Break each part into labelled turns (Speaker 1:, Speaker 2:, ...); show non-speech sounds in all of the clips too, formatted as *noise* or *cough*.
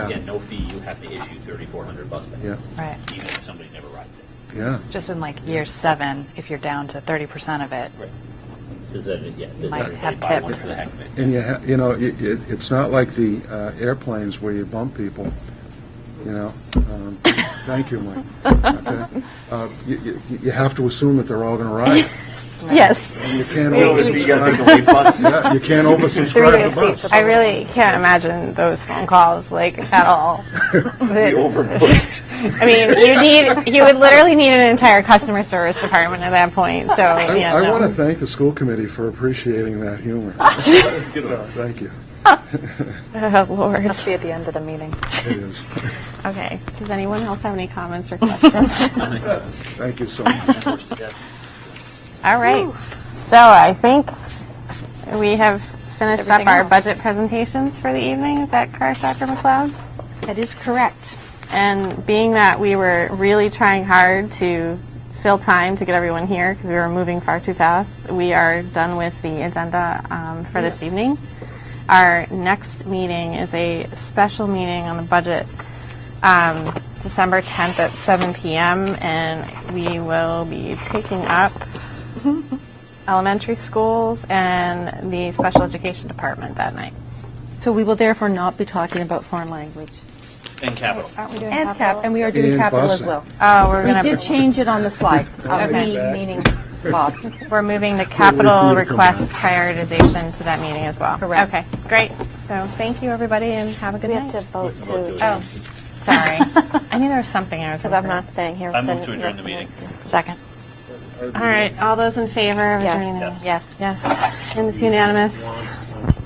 Speaker 1: Again, no fee, you have to issue 3,400 bus
Speaker 2: Yeah.
Speaker 1: passes.
Speaker 3: Right.
Speaker 1: Even if somebody never rides it.
Speaker 2: Yeah.
Speaker 3: Just in like year seven, if you're down to 30% of it,
Speaker 1: Does that, yeah, does
Speaker 3: Might
Speaker 1: everybody
Speaker 3: have
Speaker 1: buy one
Speaker 3: tipped.
Speaker 1: for the heck of it?
Speaker 2: And you, ha- you know, it, it, it's not like the uh, airplanes where you bump people, you know? Um, Thank you, Mike. Okay. Uh, You, you- you have to assume that they're all going to ride.
Speaker 4: Yes,
Speaker 2: And You can't
Speaker 5: You know, you gotta
Speaker 2: oversubscribe.
Speaker 5: take away buses.
Speaker 2: *laughs* Yeah, you can't oversubscribe the bus.
Speaker 4: I really can't imagine those phone calls like
Speaker 2: *laughs*
Speaker 4: at all.
Speaker 5: We overbooked.
Speaker 4: *laughs* I mean, you need you would literally need an entire customer service department at that point. So
Speaker 2: I,
Speaker 4: yeah,
Speaker 2: I
Speaker 4: no.
Speaker 2: want to thank the school committee for appreciating that
Speaker 6: *laughs*
Speaker 2: humor. Thank you.
Speaker 4: *laughs* oh, Lord.
Speaker 3: must be at the end of the meeting.
Speaker 2: It is.
Speaker 4: Okay. Does anyone else have any comments
Speaker 2: *laughs*
Speaker 4: or questions?
Speaker 2: Thank you so much.
Speaker 4: all right. So I think we have finished up
Speaker 6: Everything
Speaker 4: our
Speaker 6: else.
Speaker 4: budget presentations for the evening. Is that correct, Dr. McLeod?
Speaker 6: That is correct.
Speaker 4: And being that we were really trying hard to fill time to get everyone here because we were moving far too fast, we are done with the agenda um, for this evening. Our next meeting is a special meeting on the budget, um, December 10th at 7 p.m., and we will be taking
Speaker 6: *laughs*
Speaker 4: up elementary schools and the special education department that night.
Speaker 6: So we will therefore not be talking about foreign language.
Speaker 1: And capital.
Speaker 6: And cap, and we are doing
Speaker 2: And
Speaker 6: capital as
Speaker 2: busing.
Speaker 6: well.
Speaker 4: Oh, we're
Speaker 6: We
Speaker 4: going to
Speaker 6: did change it on the
Speaker 1: *laughs*
Speaker 6: slide. Uh, We, meaning Bob.
Speaker 4: We're moving the capital
Speaker 2: Wait for you to come
Speaker 4: request prioritization to that meeting as well.
Speaker 6: Correct.
Speaker 4: Okay, great. So thank you, everybody, and have a good night.
Speaker 1: Vote to.
Speaker 4: *laughs* Sorry. I knew there was something I was. Because I'm not staying here.
Speaker 1: I move to adjourn the meeting.
Speaker 3: Second.
Speaker 4: All right, all those in favor of adjourning? the-
Speaker 3: Yes.
Speaker 4: Yes, and it's unanimous.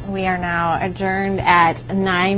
Speaker 4: We are now adjourned at nine.